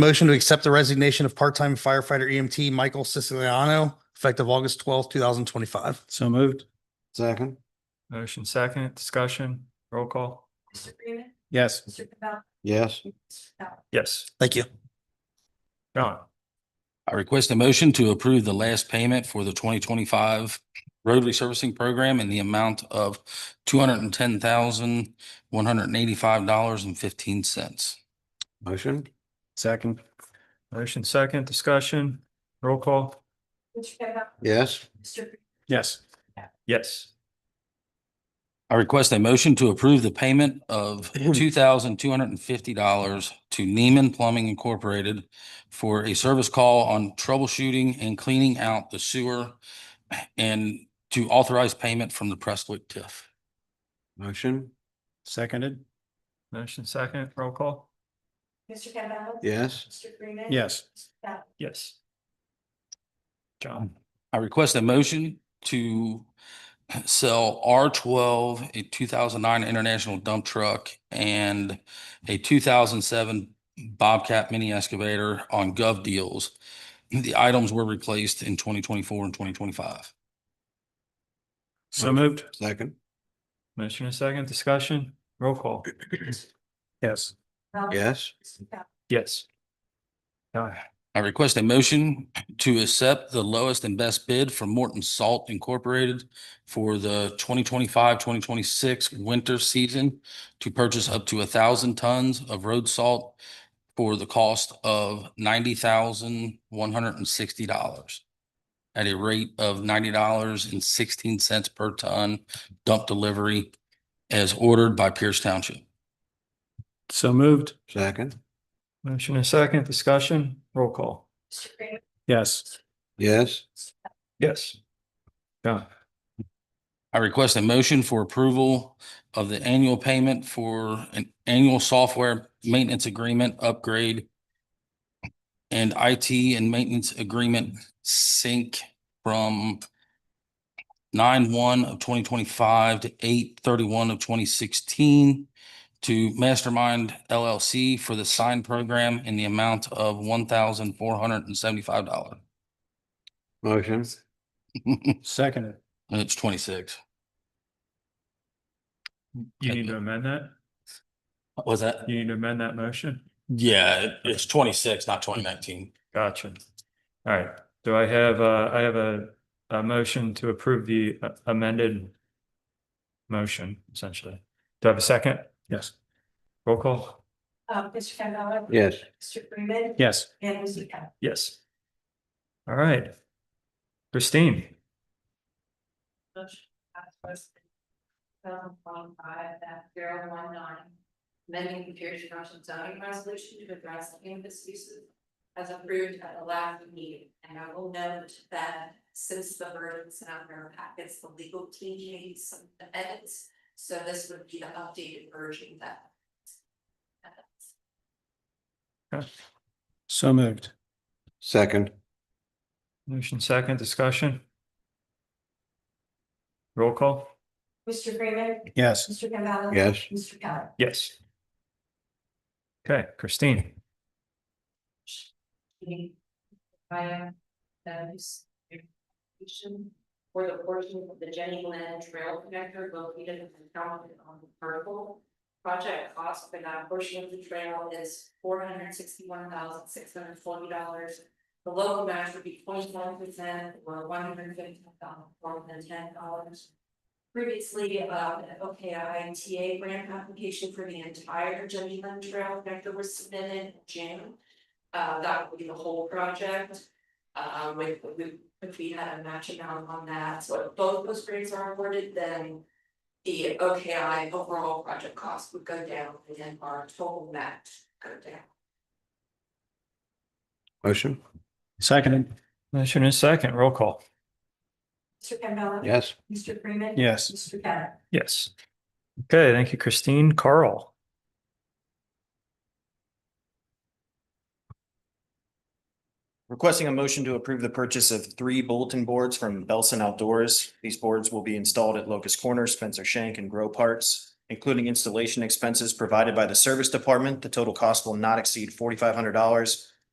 Motion to accept the resignation of part-time firefighter EMT Michael Siciliano effective August twelfth, two thousand twenty-five. So moved. second, Motion second, discussion, roll call. Mr. Freeman. Yes. Mr. Campbell. yes, Mr. Campbell. Yes, Thank you. John, I request a motion to approve the last payment for the twenty twenty-five road resurfacing program in the amount of two hundred and ten thousand, one hundred and eighty-five dollars and fifteen cents. motion, Second. motion second, discussion, roll call. Mr. Campbell. yes, Mr. Freeman. Yes. Yes, I request a motion to approve the payment of two thousand, two hundred and fifty dollars to Neiman Plumbing Incorporated for a service call on troubleshooting and cleaning out the sewer and to authorize payment from the Prestwick TIF. motion, Seconded. motion second, roll call. Mr. Campbell. yes, Mr. Freeman. Yes. Mr. Campbell. Yes. John, I request a motion to sell R twelve, a two thousand nine International dump truck and a two thousand seven Bobcat mini excavator on Gov Deals. The items were replaced in twenty twenty-four and twenty twenty-five. So moved. second, motion and second, discussion, roll call. Yes. yes, Mr. Campbell. Yes. John, I request a motion to accept the lowest and best bid from Morton Salt Incorporated for the 2025-2026 winter season to purchase up to a thousand tons of road salt for the cost of ninety thousand, one hundred and sixty dollars at a rate of ninety dollars and sixteen cents per ton dump delivery as ordered by Pierce Township. So moved. second, motion and second, discussion, roll call. Mr. Freeman. Yes. yes, Mr. Yes. John, I request a motion for approval of the annual payment for an annual software maintenance agreement upgrade and IT and maintenance agreement sync from nine one of twenty twenty-five to eight thirty-one of twenty sixteen to Mastermind LLC for the sign program in the amount of one thousand four hundred and seventy-five dollars. motion, Seconded. It's twenty-six. you need to amend that? Was that? You need to amend that motion? Yeah, it- it's twenty-six, not twenty nineteen. Gotcha. All right, do I have, uh, I have a, a motion to approve the uh, amended motion essentially. Do I have a second? Yes. Roll call? Um, Mr. Campbell. yes, Mr. Freeman. Yes. And Mr. Campbell. Yes. All right. Christine, Motion passed first. Seven one five that zero one nine. Amending the Pierce Township zoning resolution to address cannabis uses. As approved at the last meeting, and I will note that since the verdicts and our packets, the legal team made some edits. So this would be the updated version that. So moved. second, motion second, discussion? Roll call? Mr. Freeman. Yes. Mr. Campbell. yes, Mr. Keller. Yes. Okay, Christine, meeting via those application for the portion of the Jenny Lynn Trail Connector located in the town on the purple. Project cost for that portion of the trail is four hundred sixty-one thousand six hundred forty dollars. The local match would be twenty-one percent or one hundred fifty thousand four hundred ten dollars. Previously, uh, OKI TA grant application for the entire Jenny Lynn Trail Connector was submitted in June. Uh, that would be the whole project. Um, if we, if we had a match amount on that, so if both those grades are awarded, then. The OKI overall project cost would go down and then our total match go down. motion, Seconded. motion and second, roll call? Mr. Campbell. yes, Mr. Freeman. Yes. Mr. Keller. Yes. Okay, thank you, Christine. Carl? Requesting a motion to approve the purchase of three bulletin boards from Belson Outdoors. These boards will be installed at Locust Corners, Spencer Shank, and Grow Parts including installation expenses provided by the service department. The total cost will not exceed forty-five hundred dollars